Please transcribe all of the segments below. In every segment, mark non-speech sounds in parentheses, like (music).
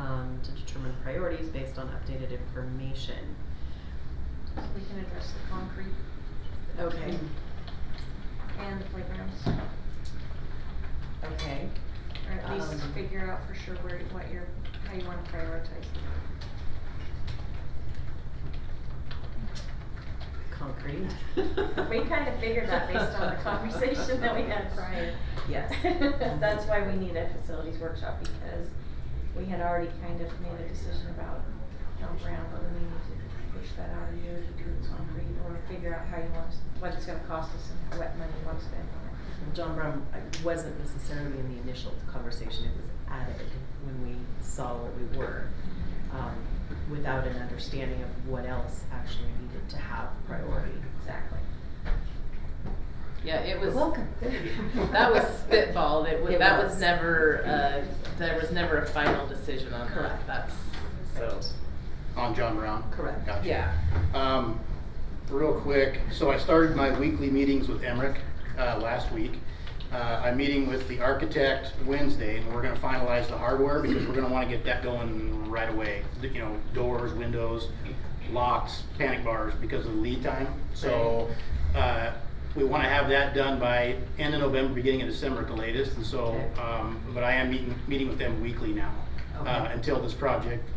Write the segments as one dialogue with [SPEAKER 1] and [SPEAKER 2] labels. [SPEAKER 1] um, priorities based on updated information.
[SPEAKER 2] So we can address the concrete
[SPEAKER 1] Okay,
[SPEAKER 2] and the playgrounds,
[SPEAKER 1] okay.
[SPEAKER 2] or at least
[SPEAKER 1] Um,
[SPEAKER 2] figure out for sure where, what your, how you wanna prioritize them.
[SPEAKER 1] Concrete.
[SPEAKER 2] We kinda figured that based
[SPEAKER 1] (laughs)
[SPEAKER 2] on the conversation that we had prior.
[SPEAKER 1] Yes.
[SPEAKER 2] (laughs) (laughs) That's why we need a facilities workshop, because we had already kind of made a decision about John Brown, whether we need to push that out a year to do it concrete, or figure out how you want, us- what it's gonna cost us and what money you want to spend on
[SPEAKER 1] (laughs)
[SPEAKER 2] it.
[SPEAKER 1] John Brown I wasn't necessarily in the initial conversation, it was added when we saw where we were, um, without an understanding of what else actually needed to have priority.
[SPEAKER 2] Exactly.
[SPEAKER 3] Yeah, it was.
[SPEAKER 2] (laughs)
[SPEAKER 3] That was spitballed, it was,
[SPEAKER 1] It
[SPEAKER 3] that was
[SPEAKER 1] was.
[SPEAKER 3] never, uh, there was never a final decision on
[SPEAKER 1] Correct.
[SPEAKER 3] that, that's, so,
[SPEAKER 4] On John Brown?
[SPEAKER 1] Correct.
[SPEAKER 4] Gotcha.
[SPEAKER 3] yeah.
[SPEAKER 4] Um, real quick, so I started my weekly meetings with Emmerich, uh, last week. Uh, I'm meeting with the architect Wednesday, and we're gonna finalize the hardware, because we're gonna wanna get that going right away. The- You know, doors, windows, locks, panic bars, because of the lead time. So, uh, we wanna have that done by end of November, beginning of December at the latest, and so,
[SPEAKER 1] Okay.
[SPEAKER 4] um, but I am meeting, meeting with them weekly now. Uh,
[SPEAKER 1] Okay.
[SPEAKER 4] until this project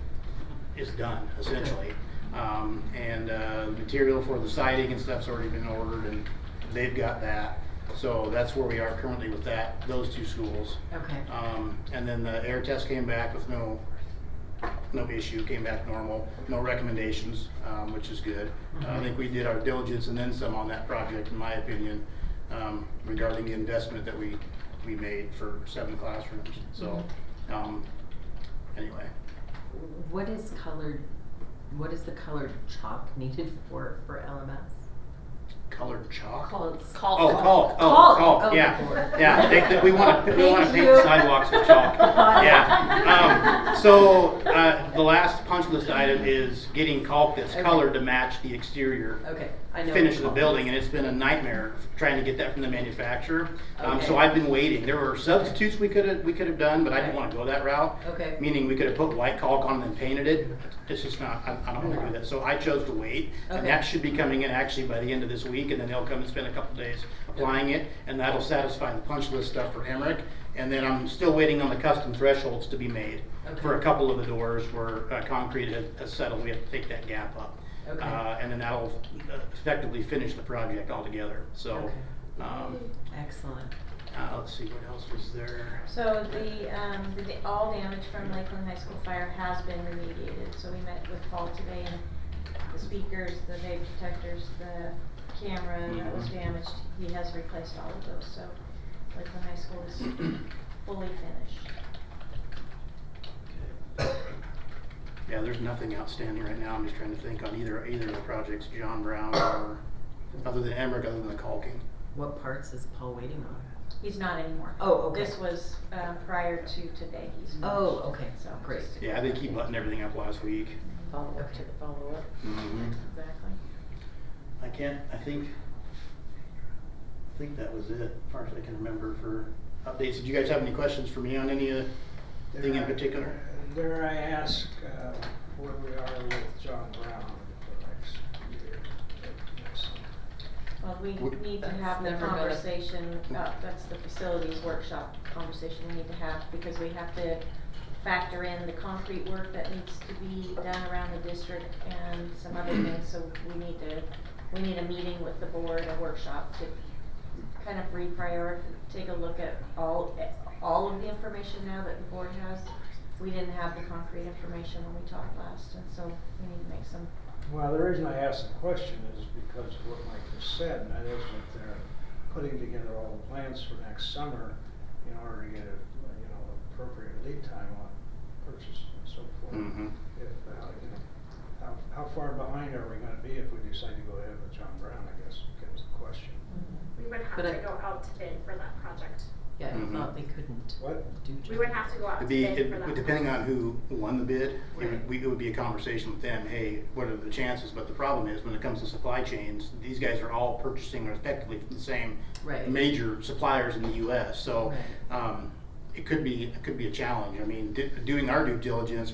[SPEAKER 4] is done, essentially. Um, and, uh, the material for the siding and stuff's already been ordered and they've got that. So that's where we are currently with that, those two schools.
[SPEAKER 1] Okay,
[SPEAKER 4] Um, and then the air test came back with no, no issue, came back normal, no recommendations, um, which is good. Uh, I think we did our diligence and then some on that project, in my opinion, um, regarding the investment that we, we made for seven classrooms, so, um, anyway.
[SPEAKER 1] what is colored, what is the colored chalk needed for, for LMS?
[SPEAKER 4] Colored chalk?
[SPEAKER 1] Called.
[SPEAKER 4] Oh, call, oh, call, yeah, yeah, they, they- we wanna, we wanna
[SPEAKER 1] Thank
[SPEAKER 4] paint
[SPEAKER 1] you.
[SPEAKER 4] sidewalks with
[SPEAKER 1] (laughs)
[SPEAKER 4] chalk,
[SPEAKER 1] Got it.
[SPEAKER 4] yeah. Um, so, uh, the last punch list item is getting caulk that's
[SPEAKER 1] Okay.
[SPEAKER 4] colored to match the exterior
[SPEAKER 1] Okay, I know.
[SPEAKER 4] finish of the
[SPEAKER 1] called.
[SPEAKER 4] building, and it's been a nightmare trying to get that from the manufacturer. Um, so
[SPEAKER 1] Okay.
[SPEAKER 4] I've been waiting, there were substitutes we could've, we could've done, but I didn't
[SPEAKER 1] Right.
[SPEAKER 4] wanna go that route.
[SPEAKER 1] Okay.
[SPEAKER 4] Meaning we could have put white caulk on and then painted it. It's just not, I, I don't wanna do that. So I chose to wait. And
[SPEAKER 1] Okay.
[SPEAKER 4] that should be coming in actually by the end of this week and then they'll come and spend a couple days applying it. And that'll satisfy the punch list stuff for Emmerich. And then I'm still waiting on the custom thresholds to be made. For a
[SPEAKER 1] Okay.
[SPEAKER 4] couple of the doors where uh, concrete has has settled, we have to take that gap up.
[SPEAKER 1] Okay.
[SPEAKER 4] Uh, and then that'll effectively finish the project altogether. So,
[SPEAKER 1] Okay.
[SPEAKER 4] um,
[SPEAKER 1] Excellent.
[SPEAKER 4] uh, let's see, what else was there?
[SPEAKER 2] So the, um, the, da- all damage from Lakeland High School fire has been remediated, so we met with Paul today and the speakers, the vape detectors, the camera that was
[SPEAKER 4] Mhm.
[SPEAKER 2] damaged, he has replaced all of those, so Lakeland High School is fully finished.
[SPEAKER 4] Yeah, there's nothing outstanding right now. I'm just trying to think on either, either of the projects, John Brown or, other than Emmerich, other than the caulking.
[SPEAKER 1] What parts is Paul waiting on?
[SPEAKER 2] He's not anymore.
[SPEAKER 1] Oh, okay.
[SPEAKER 2] This was, um, prior to today, he's finished.
[SPEAKER 1] Oh, okay,
[SPEAKER 2] So
[SPEAKER 1] great.
[SPEAKER 2] just-
[SPEAKER 4] Yeah, I think he buttoned everything up last week.
[SPEAKER 3] Follow
[SPEAKER 1] up to the
[SPEAKER 3] follow up.
[SPEAKER 2] Exactly.
[SPEAKER 4] I can't, I think, I think that was it, as far as I can remember for updates. Did you guys have any questions for me on any of the thing in
[SPEAKER 5] There I-
[SPEAKER 4] particular?
[SPEAKER 5] There I ask uh, where we are with John Brown for the next year. next summer.
[SPEAKER 2] Well, we
[SPEAKER 4] Would-
[SPEAKER 2] need to
[SPEAKER 3] That's
[SPEAKER 2] have the
[SPEAKER 3] never gonna-
[SPEAKER 2] conversation, about that's the facilities workshop conversation we need to have, because we have to factor in the concrete work that needs to be done around the district and some other things, so we need to, we need a meeting with the board, a workshop to kind of reprioritize, take a look at all, at all of the information now that the board has. We didn't have the concrete information when we talked last, and so we need to make some
[SPEAKER 5] Well, the reason I asked the question is because of what Mike just said, and that is that they're putting together all the plans for next summer in order to get a, you know, appropriate lead time on purchase and so forth.
[SPEAKER 4] Mhm.
[SPEAKER 5] If, uh, you know, how, how far behind are we gonna be if we decide to go ahead with John Brown, I guess, becomes the question.
[SPEAKER 6] We would have
[SPEAKER 1] But I-
[SPEAKER 6] to go out to bid for that project.
[SPEAKER 1] Yeah, I
[SPEAKER 4] Mhm.
[SPEAKER 1] thought they couldn't
[SPEAKER 5] What?
[SPEAKER 1] do.
[SPEAKER 6] We would have to go out to
[SPEAKER 4] It'd be,
[SPEAKER 6] bid for that.
[SPEAKER 4] it- depending on who won the bid, it
[SPEAKER 1] Right.
[SPEAKER 4] would, we- it would be a conversation with them, hey, what are the chances? But the problem is, when it comes to supply chains, these guys are all purchasing effectively from the same
[SPEAKER 1] Right.
[SPEAKER 4] major suppliers in the US, so,
[SPEAKER 1] Right.
[SPEAKER 4] um, it could be, it could be a challenge. I mean, di- doing our due diligence,